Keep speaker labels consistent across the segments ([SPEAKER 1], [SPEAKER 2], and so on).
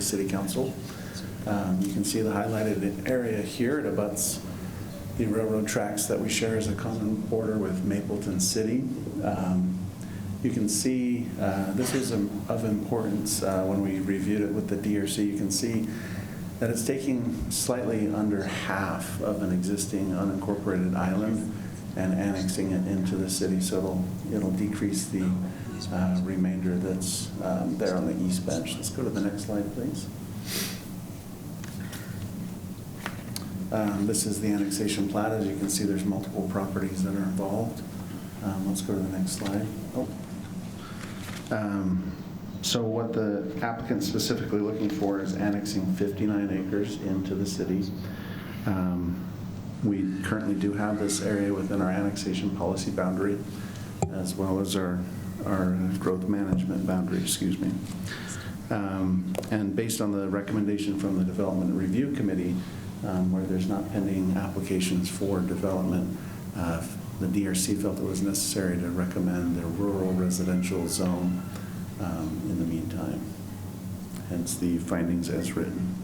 [SPEAKER 1] City Council. Um, You can see the highlighted area here, it abuts the railroad tracks that we share as a common border with Mapleton City. Um, You can see, uh, this was im- of importance uh, when we reviewed it with the DRC, you can see that it's taking slightly under half of an existing unincorporated island and annexing it into the city, so it'll, it'll decrease the uh, remainder that's um, there on the east bench. Let's go to the next slide, please. Um, This is the annexation plat. As you can see, there's multiple properties that are involved. Um, Let's go to the next slide. Oh. Um, So what the applicant's specifically looking for is annexing 59 acres into the city. Um, We currently do have this area within our annexation policy boundary, as well as our, our growth management boundary, excuse me. Um, And based on the recommendation from the Development Review Committee, um, where there's not pending applications for development, uh, the DRC felt it was necessary to recommend the rural residential zone um, in the meantime, hence the findings as written.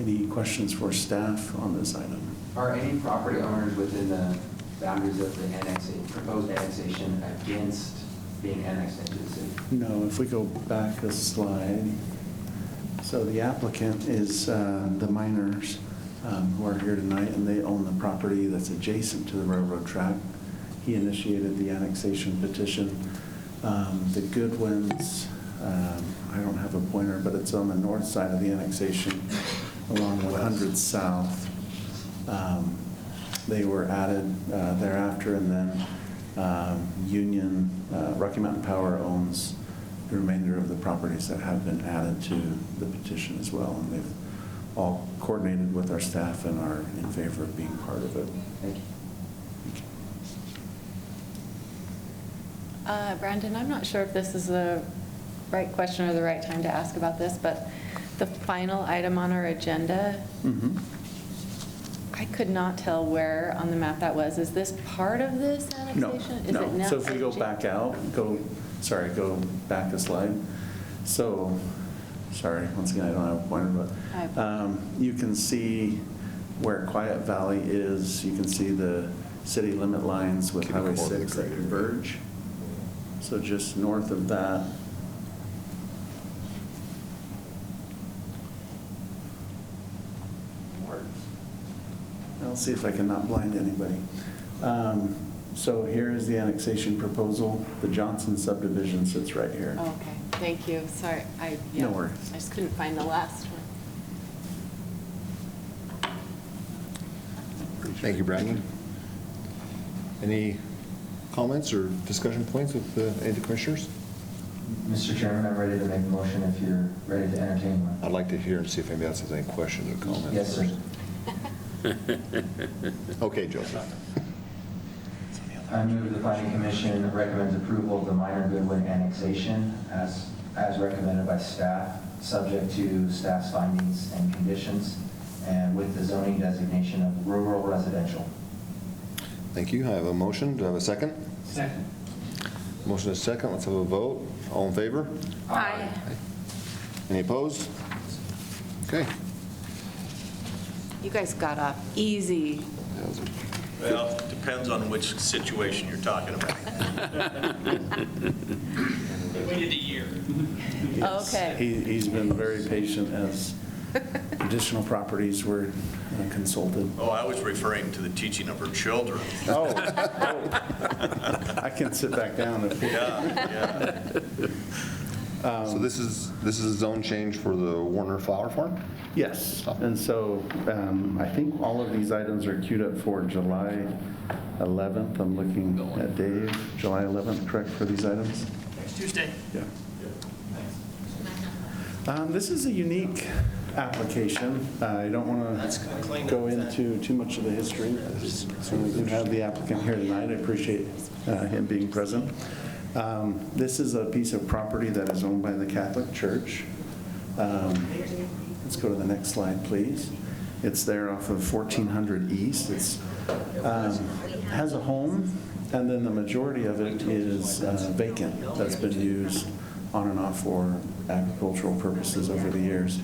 [SPEAKER 1] Any questions for staff on this item?
[SPEAKER 2] Are any property owners within the boundaries of the annexation, proposed annexation against being annexed into the city?
[SPEAKER 1] No, if we go back a slide. So the applicant is uh, the miners um, who are here tonight, and they own the property that's adjacent to the railroad track. He initiated the annexation petition. Um, The Goodwins, um, I don't have a pointer, but it's on the north side of the annexation along 100 South. Um, They were added uh, thereafter, and then um, Union, uh, Rocky Mountain Power owns the remainder of the properties that have been added to the petition as well, and they've all coordinated with our staff and are in favor of being part of it.
[SPEAKER 2] Thank you.
[SPEAKER 3] Uh, Brandon, I'm not sure if this is the right question or the right time to ask about this, but the final item on our agenda,
[SPEAKER 1] Mhm.
[SPEAKER 3] I could not tell where on the map that was. Is this part of this
[SPEAKER 1] No,
[SPEAKER 3] annexation? Is it
[SPEAKER 1] no.
[SPEAKER 3] now-
[SPEAKER 1] So if we go back out, go, sorry, go back a slide. So, sorry, once again, I don't have a pointer, but
[SPEAKER 3] I-
[SPEAKER 1] um, you can see where Quiet Valley is. You can see the city limit lines with Highway 6 that converge. So just north of that. I'll see if I can not blind anybody. Um, So here is the annexation proposal. The Johnson subdivision sits right here.
[SPEAKER 3] Oh, Okay, thank you. Sorry, I, yeah.
[SPEAKER 1] No worries.
[SPEAKER 3] I just couldn't find the last one.
[SPEAKER 4] Thank you, Brandon. Any comments or discussion points with the any of the commissioners?
[SPEAKER 5] Mr. Chairman, I'm ready to make a motion if you're ready to entertain one.
[SPEAKER 4] I'd like to hear and see if anybody else has any questions or comments.
[SPEAKER 5] Yes, sir.
[SPEAKER 4] Okay, Joseph.
[SPEAKER 5] I move the planning commission recommends approval of the minor Goodwin annexation as, as recommended by staff, subject to staff's findings and conditions, and with the zoning designation of rural residential.
[SPEAKER 4] Thank you. I have a motion. Do I have a second?
[SPEAKER 5] Second.
[SPEAKER 4] Motion is second. Let's have a vote. All in favor?
[SPEAKER 3] Aye.
[SPEAKER 4] Any opposed? Okay.
[SPEAKER 3] You guys got off easy.
[SPEAKER 4] That was a-
[SPEAKER 6] Well, depends on which situation you're talking about.
[SPEAKER 1] Yes.
[SPEAKER 3] Okay.
[SPEAKER 1] He- He's been very patient as additional properties were uh, consulted.
[SPEAKER 6] Oh, I was referring to the teaching of her children.
[SPEAKER 1] Oh, I can sit back down if
[SPEAKER 5] Um,
[SPEAKER 4] So this is, this is a zone change for the Warner Flower Farm?
[SPEAKER 1] Yes, and so um, I think all of these items are queued up for July 11th. I'm looking at Dave, July 11th, correct, for these items? Next Tuesday. Yeah. Um, This is a unique application. I don't want to go into too much of the history. So we do have the applicant here tonight. I appreciate uh, him being present. Um, This is a piece of property that is owned by the Catholic Church. Um, Let's go to the next slide, please. It's there off of 1400 East. It's, um, has a home, and then the majority of it is uh, vacant, that's been used on and off for agricultural purposes over the years.